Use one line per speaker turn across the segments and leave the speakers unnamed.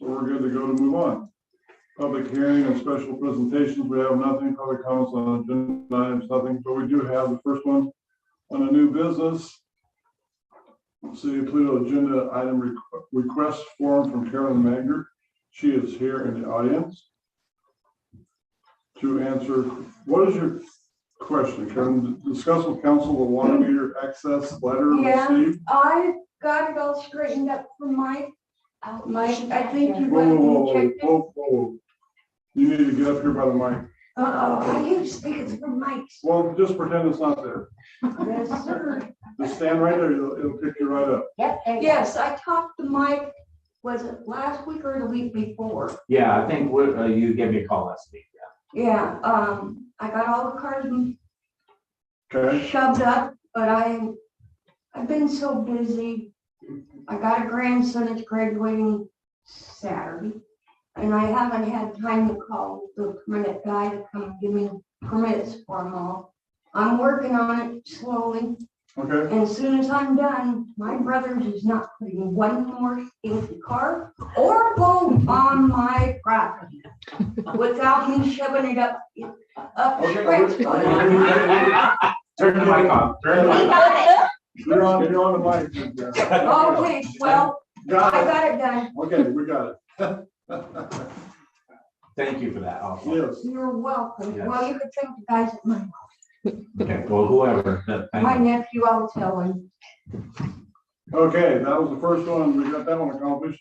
we're good to go to move on. Public hearing and special presentations, we have nothing, public comments on agenda items, nothing, but we do have the first one on a new business. City of Pluto agenda item requ- request form from Carolyn Magner. She is here in the audience. To answer, what is your question, Carolyn? Discuss with council the water meter access letter
Yeah.
received.
I got it all straightened up for Mike. Uh,
Oh,
Mike, I think you
Whoa,
went
whoa,
and
whoa,
checked it.
whoa, whoa. You need to get up here by the mic.
Uh-oh, I used to think it's for Mike's.
Well, just pretend it's not there.
Yes, sir.
Just stand right there. It'll, it'll pick you right up.
Yep. there you go.
Yes, I talked to Mike, was it last week or the week before?
Yeah, I think what, uh, you gave me a call last week.
Yeah, um, I got all the cards
Okay?
shoved up, but I, I've been so busy. I got a grandson that's graduating Saturday, and I haven't had time to call the permit guy to come give me permits for them all. I'm working on it slowly,
Okay.
and as soon as I'm done, my brother is not putting one more stinky car or boat on my property without me shoving it up, up.
Okay,
Brett's butt.
Turn the mic off, turn the mic off.
You're on, you're on the mic. Cynthia.
Okay, well, I
Got
got it done.
it. Okay, we got it.
Thank you for that also.
Yes.
You're welcome. Well, you could thank the guys at my,
Okay, well, whoever, but
my
thank you.
nephew, I'll tell him.
Okay, that was the first one. We got that one accomplished.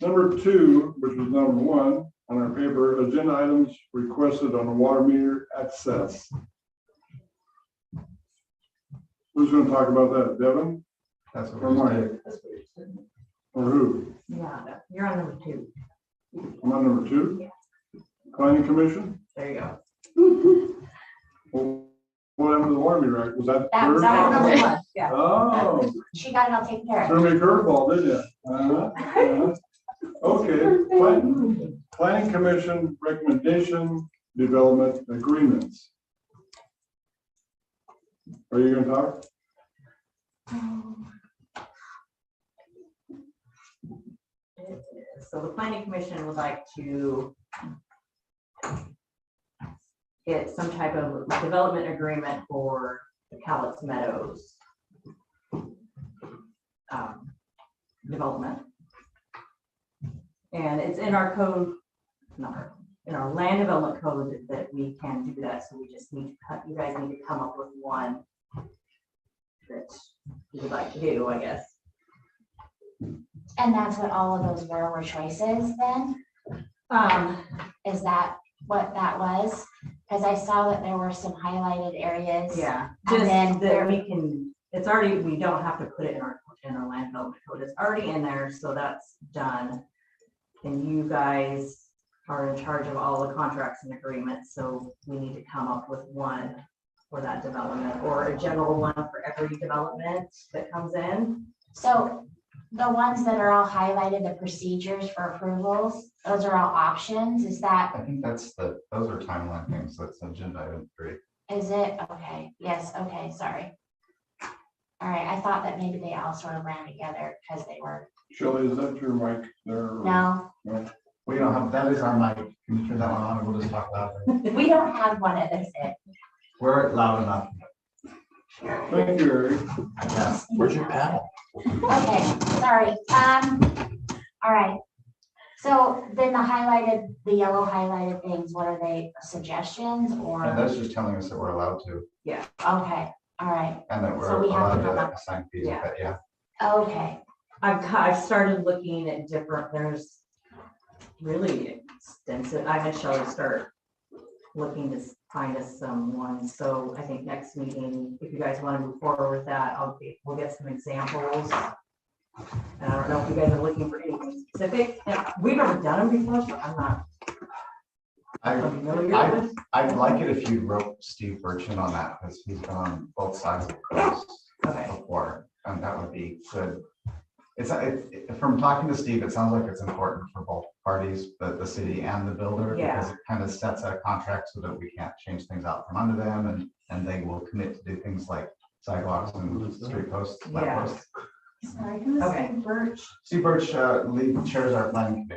Number two, which was number one on our paper, agenda items requested on the water meter access. Who's gonna talk about that? Devin
That's what
or
we're
Mike?
saying.
Or who?
Yeah, you're on number two.
Am I number two? Planning Commission?
There you go.
Well, What happened to the water meter? act? Was that?
That was our number
third?
one. Yeah.
Oh,
She got it all taken care of.
threw me a curveball, did you? Uh-huh, uh-huh. Okay, Plan- Planning Commission Recommendation Development Agreements. Are you gonna talk?
So the planning commission would like to get some type of development agreement for the Cowlitz Meadows um, development. And it's in our code, not our- in our land development code that- that we can do that, so we just need, to cut- you guys need to come up with one that you would like to do, I guess.
And that's what all of those were, were choices then?
Um,
Is that what that was? Because I saw that there were some highlighted areas.
Yeah,
And
just
then
that
there-
we can, it's already, we don't have to put it in our, in our land development code, it's already in there, so that's done. And you guys are in charge of all the contracts and agreements, so we need to come up with one for that development, or a general one for every development that comes in.
So the ones that are all highlighted, the procedures for approvals, those are all options. Is that,
I think that's the, those are timeline things, that's agenda item three.
is it? Okay, yes, okay, sorry. All right, I thought that maybe they all sort of ran together because they were,
Shelley, is that your mic there?
no,
We don't have, that is our mic, can you turn that one on, and we'll just talk loud.
we don't have one of those. yet.
We're loud enough.
Thank you, Eric.
Yes.
Where's your paddle?
Okay, sorry. Um, all right. So then the highlighted, the yellow highlighted things, what are they, suggestions
And
or?
that's just telling us that we're allowed to,
Okay, all right,
and that
So
we're
we have to
allowed to
have
assign fees,
Yeah.
but yeah.
okay.
I've, ca- I've started looking at different, there's really extensive, I had Shelley start looking to s- find us someone, so I think next meeting, if you guys want to move forward with that, I'll be, we'll get some examples. And I don't know if you guys are looking for anything specific, and we've never done them before, so I'm not
I,
familiar
I-
with.
I'd like it if you wrote Steve Burchin on that, because he's been on both sides of the coast
Okay,
before, and that would be good. It's, it, it- from talking to Steve, it sounds like it's important for both parties, the, the city and the builder. Because it kind of sets a contract so that we can't change things out from under them, and, and they will commit to do things like sidewalks and street posts, light
Yeah.
posts.
Sorry, who's
Okay.
Birch?
Steve Birch, uh, lead- chairs our planning committee.